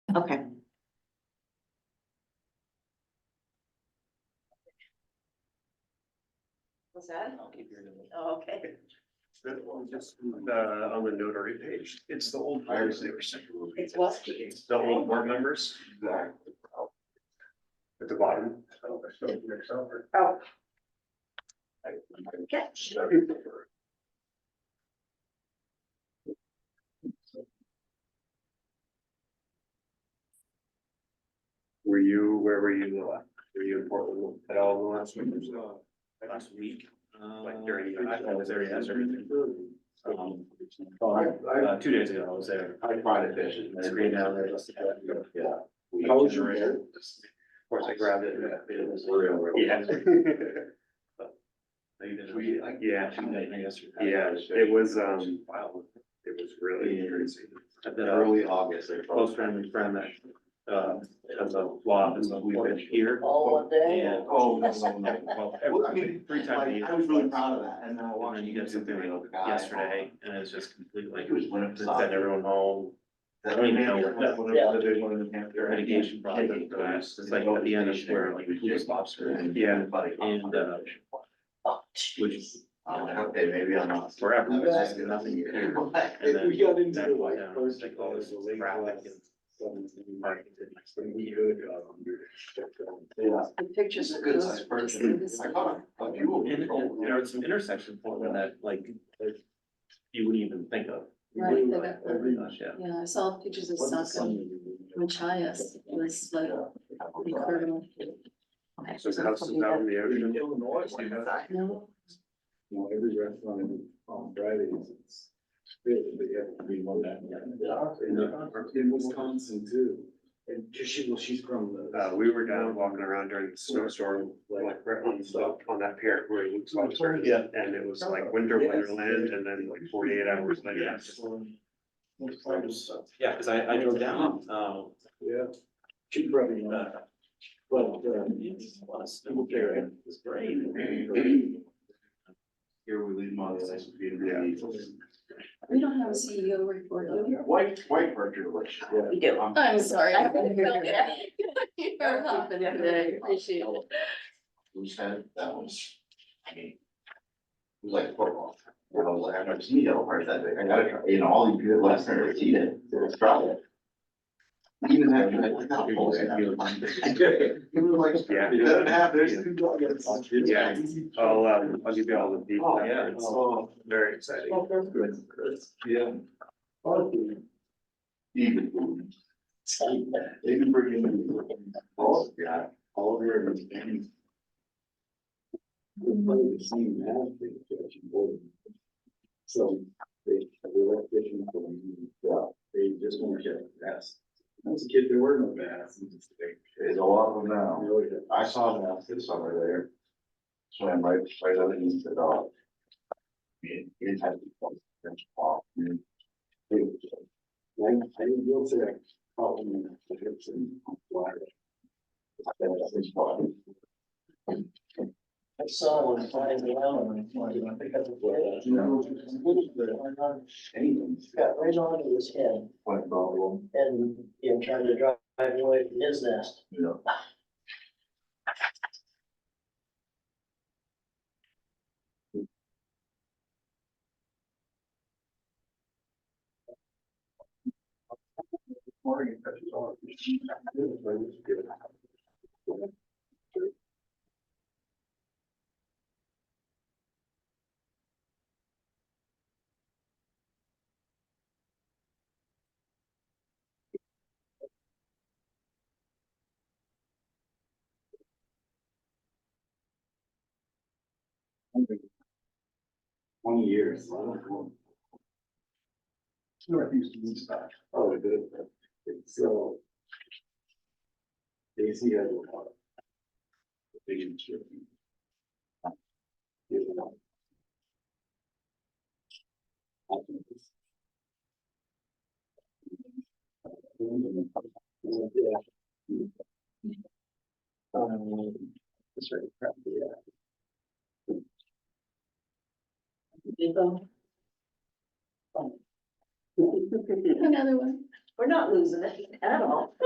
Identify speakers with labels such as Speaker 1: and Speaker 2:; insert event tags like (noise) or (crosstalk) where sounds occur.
Speaker 1: What's that?
Speaker 2: I'll keep your number.
Speaker 1: Oh, okay.
Speaker 2: That one just, uh, on the notary page, it's the old hires they were sent.
Speaker 1: It's what?
Speaker 2: It's The old board members. At the bottom.
Speaker 1: Oh, okay.
Speaker 2: Were you, where were you, uh, were you in Portland at all the last week? or so? Last week, like during, the-
Speaker 3: Uh,
Speaker 2: I was there, yes, everything. Um, uh, two days ago, I was there.
Speaker 3: I tried to fish it.
Speaker 2: It's green now, they're just-
Speaker 3: Yeah.
Speaker 2: How was your hair? Of course, I grabbed it. and it was-
Speaker 3: Real, real.
Speaker 2: (laughs) Yeah.
Speaker 3: We, I.
Speaker 2: Yeah, yeah, it was, um, wow, it was really crazy. I've been a
Speaker 3: Early August, they.
Speaker 2: close friend and friend that, uh, has a law, and so we've been here.
Speaker 4: Oh,
Speaker 2: And, oh, no, no, no, well,
Speaker 3: Well, I
Speaker 2: every-
Speaker 3: mean,
Speaker 2: three times. a
Speaker 3: like,
Speaker 2: year.
Speaker 3: I was really proud of that, and then I
Speaker 2: And
Speaker 3: watched.
Speaker 2: then you get something like
Speaker 3: guy.
Speaker 2: yesterday, and it's just completely,
Speaker 3: Like it was when it
Speaker 2: like,
Speaker 3: was.
Speaker 2: send everyone home,
Speaker 3: That-
Speaker 2: I don't even know what that-
Speaker 3: Whatever the big one,
Speaker 2: their mitigation project, goes. it's like at the end of where, like, we just lobster. and- Yeah, and, uh, which,
Speaker 3: Uh, okay, maybe I'm not.
Speaker 2: wherever, it's just nothing here. And then
Speaker 4: We got into
Speaker 2: that
Speaker 4: the
Speaker 2: went
Speaker 4: like
Speaker 2: down,
Speaker 4: first.
Speaker 2: like, all this
Speaker 4: late
Speaker 2: traffic
Speaker 4: class.
Speaker 2: and- Right. um,
Speaker 3: (laughs) Yeah.
Speaker 1: The pictures.
Speaker 3: Just a
Speaker 1: of
Speaker 3: good
Speaker 1: those-
Speaker 3: sized person.
Speaker 1: this-
Speaker 3: I caught a, a few of
Speaker 2: And,
Speaker 3: them.
Speaker 2: and there are some intersection points that like, you wouldn't even think of.
Speaker 1: Right, they got-
Speaker 2: Oh my gosh, yeah.
Speaker 1: Yeah, I saw pictures of
Speaker 3: What's the
Speaker 1: Saka Machias, it was like incredible.
Speaker 2: So it's houses out in the ocean.
Speaker 4: Illinois.
Speaker 3: you know,
Speaker 1: No,
Speaker 4: You know, every restaurant in- on Fridays, it's, they they have to be on that.
Speaker 2: Yeah.
Speaker 4: In Wisconsin too, and 'cause she, well, she's from the.
Speaker 2: Uh, we were down walking around during the snowstorm, like right on the, on that pier where it looks like.
Speaker 4: Yeah.
Speaker 2: And it was like winter wonderland and then like forty-eight hours later. Yeah, cause I, I drove down, um,
Speaker 4: Yeah. She probably,
Speaker 2: uh,
Speaker 4: not, but, uh,
Speaker 2: snow pier, it was great.
Speaker 3: Here we leave my license.
Speaker 1: we don't have a CEO report, do we?
Speaker 3: White, white virtue relationship.
Speaker 4: Yeah.
Speaker 1: We do.
Speaker 3: I'm-
Speaker 1: I'm sorry. I haven't felt (laughs) it. You're helping today, appreciate it.
Speaker 3: Who said that was, I mean. It was like football. And I was like, I'm gonna see it over that day. I gotta try, you know, all these good Westerners eat it, let's try it. Even after I went out. for (laughs) it, I was like, It was like.
Speaker 2: Yeah.
Speaker 3: It doesn't have, there's two dogs.
Speaker 2: Yeah. I'll, um, I'll give you all the details.
Speaker 3: Oh, yeah.
Speaker 2: It's Very exciting.
Speaker 3: Yeah. Even food. They can bring in. All, yeah, all of your.
Speaker 4: So they, they were fishing for me, yeah, they just want to get bass. When I was a kid, there were no bass. and just like,
Speaker 3: There's a lot of them
Speaker 4: I
Speaker 3: now.
Speaker 4: really didn't-
Speaker 3: I saw them after the summer there. Swam right, right underneath the dog. It, it had to be. close to the spot. It was just
Speaker 4: I, I will say I caught one in the hips and on fly.
Speaker 3: like that was his spot.
Speaker 5: I saw one flying around and it's like, I think that's what.
Speaker 4: You know, it's good, but anything.
Speaker 5: Got right onto his head
Speaker 3: What problem,
Speaker 5: and, you know, trying to drive away from his nest.
Speaker 3: you know?
Speaker 4: Twenty years. I don't know.
Speaker 3: I used to do stuff.
Speaker 4: Oh, good. So. Daisy has a lot. of Big insurance. Here's one. I think it's-